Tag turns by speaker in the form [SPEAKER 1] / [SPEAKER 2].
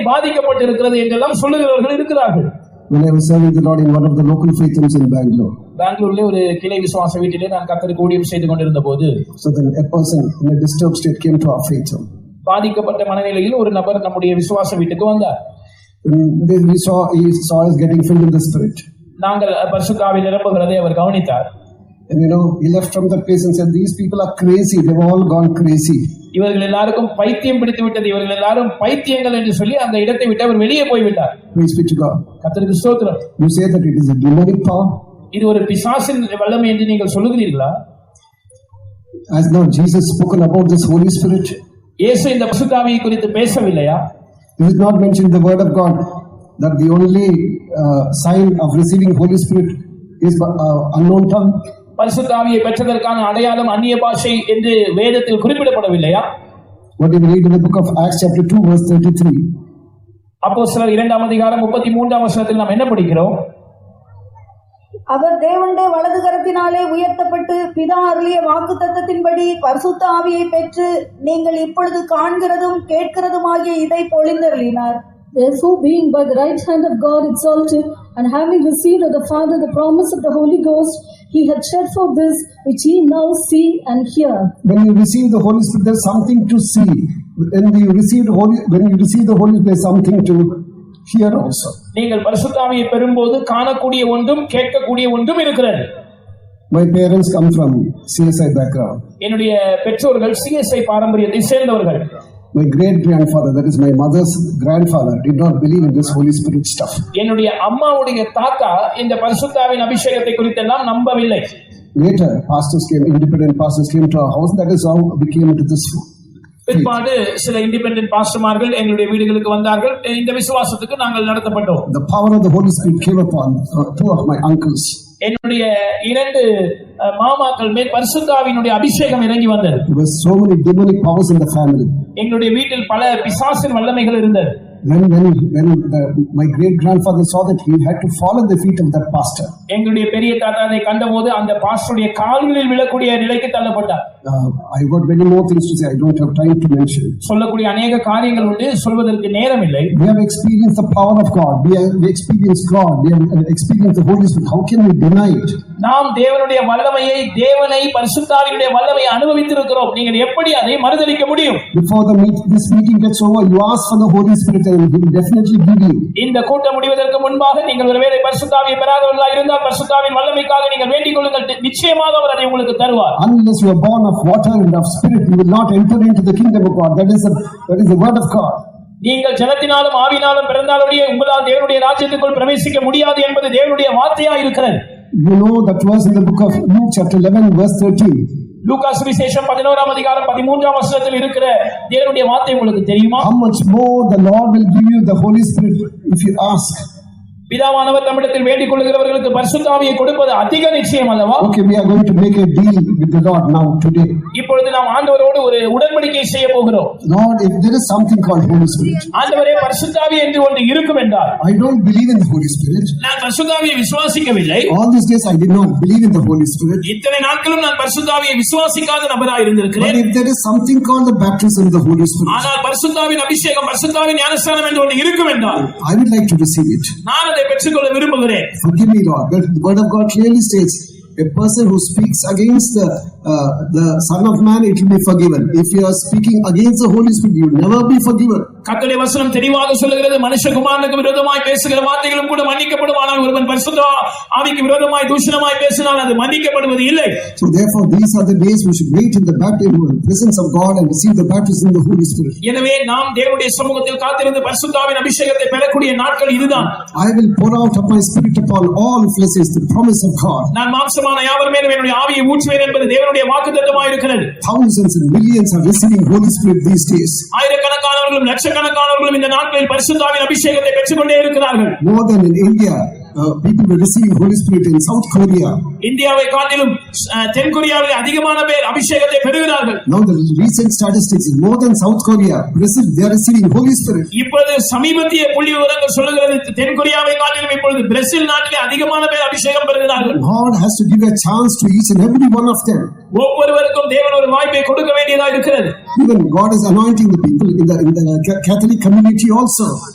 [SPEAKER 1] பாதிக்கப்பட்டிருக்கிறது என்றெல்லாம் சொல்லுகிறவர்கள் இருக்கிறார்கள்
[SPEAKER 2] When I was serving the Lord in one of the local faith rooms in Bangalore,
[SPEAKER 1] பெங்களூர்ல ஒரு கிளை விசுவாச வீட்டிலே நான் கத்தருக்கு ஊழியம் செய்து கொண்டிருந்த போது
[SPEAKER 2] so then a person in a disturbed state came to our faith home.
[SPEAKER 1] பாதிக்கப்பட்ட மனநிலையில் ஒரு நபர் நம்முடைய விசுவாச வீட்டுக்கு வந்தார்
[SPEAKER 2] And then we saw he saw us getting filled in the Spirit,
[SPEAKER 1] நாங்கள் பரிசுத்தாவில் நிரம்புகிறதை அவர் கவனித்தார்
[SPEAKER 2] and you know he left from that place and said, "These people are crazy. They've all gone crazy."
[SPEAKER 1] இவர்கள் எல்லாருக்கும் பைத்தியம் பிடித்து விட்டது இவர்கள் எல்லாரும் பைத்தியங்கள் என்று சொல்லி அந்த இடத்தை விட்டு அவர் வெளியே போய்விட்டார்
[SPEAKER 2] Praise be to God.
[SPEAKER 1] கத்தருக்கு ஸ்தோத்திரம்
[SPEAKER 2] You say that it is a demonic power.
[SPEAKER 1] இது ஒரு பிசாசின் வல்லமை என்று நீங்கள் சொல்லுகிறீர்களா
[SPEAKER 2] Has now Jesus spoken about this Holy Spirit?
[SPEAKER 1] இயேசு இந்த பசுத்தாவியை குறித்து பேசவில்லையா
[SPEAKER 2] Is it not mentioned in the Word of God that the only uh, sign of receiving Holy Spirit is uh, unknown tongue?
[SPEAKER 1] பரிசுத்தாவியை பெற்றதற்கான அடையாளம் அந்நிய பாஷை என்று வேதத்தில் குறிப்பிடப்படவில்லையா
[SPEAKER 2] What do we read in the book of Acts, chapter 2, verse 33?
[SPEAKER 1] அப்போ சிலர் இரண்டாம் அதிகாரம் முப்பத்தி மூன்றாம் வசனத்தில் நாம் என்ன படிக்கிறோம்
[SPEAKER 3] அவர் தேவனுடைய வலது கரத்தினாலே உயர்த்தப்பட்டு பிதா அருளிய வாக்குத்தத்தத்தின்படி பரிசுத்த ஆவியை பெற்று நீங்கள் இப்பொழுது காண்கிறதும் கேட்கிறதும் ஆகிய இதை பொழிந்தருளினார்
[SPEAKER 4] Therefore, being by the right hand of God exalted, and having received of the Father the promise of the Holy Ghost, he had shed forth this which ye now see and hear.
[SPEAKER 2] When you receive the Holy Spirit, there's something to see. When you receive the Holy, when you receive the Holy, there's something to hear also.
[SPEAKER 1] நீங்கள் பரிசுத்தாவியை பெறும்போது காணக்கூடிய ஒன்றும் கேட்கக்கூடிய ஒன்றும் இருக்கிறது
[SPEAKER 2] My parents come from CSI background.
[SPEAKER 1] என்னுடைய பெற்றோர்கள் சிஎஸ்ஐ பாரம்பரியத்தை சேர்ந்தவர்கள்
[SPEAKER 2] My great grandfather, that is my mother's grandfather, did not believe in this Holy Spirit stuff.
[SPEAKER 1] என்னுடைய அம்மாவுடைய தாத்தா இந்த பரிசுத்தாவின் அபிஷேகத்தை குறித்தெல்லாம் நம்பவில்லை
[SPEAKER 2] Later, pastors came, independent pastors came to our house. That is how we came into this.
[SPEAKER 1] பிற்பாடு சில இண்டிபெண்டன்ட் பாஸ்டர்மார்கள் எங்களுடைய வீடுகளுக்கு வந்தார்கள் இந்த விசுவாசத்துக்கு நாங்கள் நடத்தப்பட்டோம்
[SPEAKER 2] The power of the Holy Spirit came upon uh, two of my uncles.
[SPEAKER 1] என்னுடைய இரண்டு அஹ், மாமாக்கள் மேல் பரிசுத்தாவினுடைய அபிஷேகம் இறங்கி வந்தது
[SPEAKER 2] There were so many demonic powers in the family.
[SPEAKER 1] எங்களுடைய வீட்டில் பல பிசாசின் வல்லமைகள் இருந்தது
[SPEAKER 2] When, when, when the, my great grandfather saw that, he had to fall at the feet of that pastor.
[SPEAKER 1] எங்களுடைய பெரிய தாத்தா அதை கண்டபோது அந்த பாஸ்டருடைய கால்களில் விழக்கூடிய நிலைக்கு தள்ளப்பட்டார்
[SPEAKER 2] Uh, I've got many more things to say. I don't have time to mention.
[SPEAKER 1] சொல்லக்கூடிய அநேக காரியங்கள் உண்டு சொல்வதற்கு நேரம் இல்லை
[SPEAKER 2] We have experienced the power of God. We have we experienced God. We have uh, experienced the Holy Spirit. How can we deny it?
[SPEAKER 1] நாம் தேவனுடைய வல்லமையை தேவனை பரிசுத்தாவினுடைய வல்லமையை அனுபவித்திருக்கிறோம் நீங்கள் எப்படி அதை மறுதளிக்க முடியும்
[SPEAKER 2] Before the meet, this meeting gets over, you ask for the Holy Spirit and He will definitely give you.
[SPEAKER 1] இந்த கூட்டம் முடிவதற்கு முன்பாக நீங்கள் ஒருவேளை பரிசுத்தாவியை பெறாதவர்களாக இருந்தால் பரிசுத்தாவின் வல்லமைக்காக நீங்கள் வேண்டிக் கொள்ளுங்கள் நிச்சயமாக அவர் அதை உங்களுக்கு தருவார்
[SPEAKER 2] Unless you are born of water and of spirit, you will not enter into the kingdom of God. That is the, that is the word of God.
[SPEAKER 1] நீங்கள் ஜலத்தினாலும் ஆவினாலும் பிறந்தாலுடைய உங்களால் தேவனுடைய ராஜ்யத்துக்குள் பிரவேசிக்க முடியாது என்பது தேவனுடைய வார்த்தையா இருக்கிறது
[SPEAKER 2] You know that verse in the book of Luke, chapter 11, verse 13.
[SPEAKER 1] Lucas சுவிசேஷம் பதினோராம் அதிகாரம் பதிமூன்றாம் வசனத்தில் இருக்கிற தேவனுடைய வார்த்தை உங்களுக்கு தெரியுமா
[SPEAKER 2] How much more the Lord will give you the Holy Spirit if you ask.
[SPEAKER 1] பிதாவானவர் நம்மிடத்தில் வேண்டிக் கொள்கிறவர்களுக்கு பரிசுத்தாவியை கொடுப்பது அதிக நிச்சயம் அல்லவா
[SPEAKER 2] Okay, we are going to make a deal with the Lord now, today.
[SPEAKER 1] இப்பொழுது நாம் ஆண்டவரோடு ஒரு உடன்படிக்கை செய்ய போகிறோம்
[SPEAKER 2] Lord, if there is something called Holy Spirit,
[SPEAKER 1] ஆண்டவரே பரிசுத்தாவி என்று ஒன்று இருக்கும் என்றால்
[SPEAKER 2] I don't believe in the Holy Spirit.
[SPEAKER 1] நான் பரிசுத்தாவியை விசுவாசிக்கவில்லை
[SPEAKER 2] All these days I did not believe in the Holy Spirit.
[SPEAKER 1] இத்தனை நாட்களும் நான் பரிசுத்தாவியை விசுவாசிக்காத நபராக
[SPEAKER 2] But
[SPEAKER 1] இருந்திருக்கிறேன்
[SPEAKER 2] if there is something called the baptism of the Holy Spirit,
[SPEAKER 1] ஆனால் பரிசுத்தாவின் அபிஷேகம் பரிசுத்தாவின் ஞானஸ்தானம் என்று ஒன்று இருக்கும் என்றால்
[SPEAKER 2] I would like to receive it.
[SPEAKER 1] நான் அதை பெற்றுக்கொள்ள விரும்புகிறேன்
[SPEAKER 2] Forgive me, Lord. But the Word of God clearly states a person who speaks against the, uh, the Son of Man, it will be forgiven. If you are speaking against the Holy Spirit, you will never be forgiven.
[SPEAKER 1] கத்தடைய வசனம் தெளிவாக சொல்லுகிறது மனுஷகுமாரனுக்கு விரோதமாய் பேசுகிற வார்த்தைகளும் கூட மன்னிக்கப்படும் ஆனால் ஒருவன் பரிசுத்த ஆவிக்கு விரோதமாய் தூஷணமாய் பேசினால் அது மன்னிக்கப்படுவது இல்லை
[SPEAKER 2] So, therefore, these are the days we should wait in the baptism, in the presence of God, and receive the baptism of the Holy Spirit.
[SPEAKER 1] எனவே நாம் தேவனுடைய சமூகத்தில் காத்திருந்து பரிசுத்தாவின் அபிஷேகத்தை பெறக்கூடிய நாட்கள் இதுதான்
[SPEAKER 2] I will pour out of my spirit upon all flesh is the promise of God.
[SPEAKER 1] நான் மாம்சமான யாவர் மேலும் என்னுடைய ஆவியை ஊற்றுவேன் என்பது தேவனுடைய வாக்குத்தத்தமாக இருக்கிறது
[SPEAKER 2] Thousands and millions are receiving Holy Spirit these days,
[SPEAKER 1] ஆயிரக்கணக்கானவர்களும் லட்சக்கணக்கானவர்களும் இந்த நாட்களில் பரிசுத்தாவின் அபிஷேகத்தை பெற்றுக்கொண்டே இருக்கிறார்கள்
[SPEAKER 2] more than in India. Uh, people were receiving Holy Spirit in South Korea.
[SPEAKER 1] இந்தியாவை காட்டிலும் அஹ், தென்கொரியாவில் அதிகமான பேர் அபிஷேகத்தை பெறுகிறார்கள்
[SPEAKER 2] Now the recent statistics is more than South Korea. Brazil, they are receiving Holy Spirit.
[SPEAKER 1] இப்பொழுது சமீபத்திய புள்ளி விவரங்கள் சொல்லுகிறது தென்கொரியாவை காட்டிலும் இப்பொழுது பிரேசில் நாட்டிலே அதிகமான பேர் அபிஷேகம் பெறுகிறார்கள்
[SPEAKER 2] God has to give a chance to each and every one of them.
[SPEAKER 1] ஒவ்வொருவருக்கும் தேவன் ஒரு வாய்ப்பை கொடுக்க வேண்டியதாக இருக்கிறது
[SPEAKER 2] Even God is anointing the people in the, in the Ca- Catholic community also.